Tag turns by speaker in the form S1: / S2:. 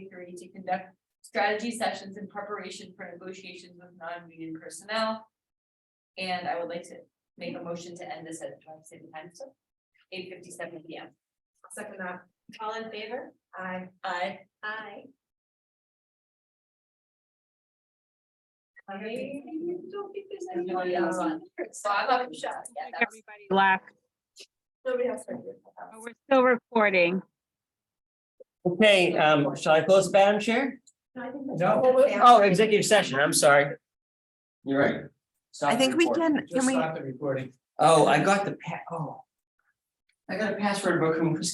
S1: authority to conduct strategy sessions in preparation for negotiations with non-union personnel. And I would like to make a motion to end this at, do I have to say the time still? Eight fifty-seven P M.
S2: Second that. All in favor? Aye.
S1: Aye.
S2: Aye.
S1: I
S2: don't think there's
S1: Anybody else on? So I'm up for shot. Yeah, that was-
S3: Everybody black.
S2: Nobody else. heard you.
S3: Oh, We're still recording.
S4: Okay, um, shall I close, Madam Chair?
S2: No, I think that's-
S4: No.
S2: Well, we'll-
S4: Oh, executive session, I'm sorry. You're right. Stop
S5: I
S4: the
S5: think we
S4: recording.
S5: can, can we?
S4: Oh, I got the pa- oh. I got a password book from Chris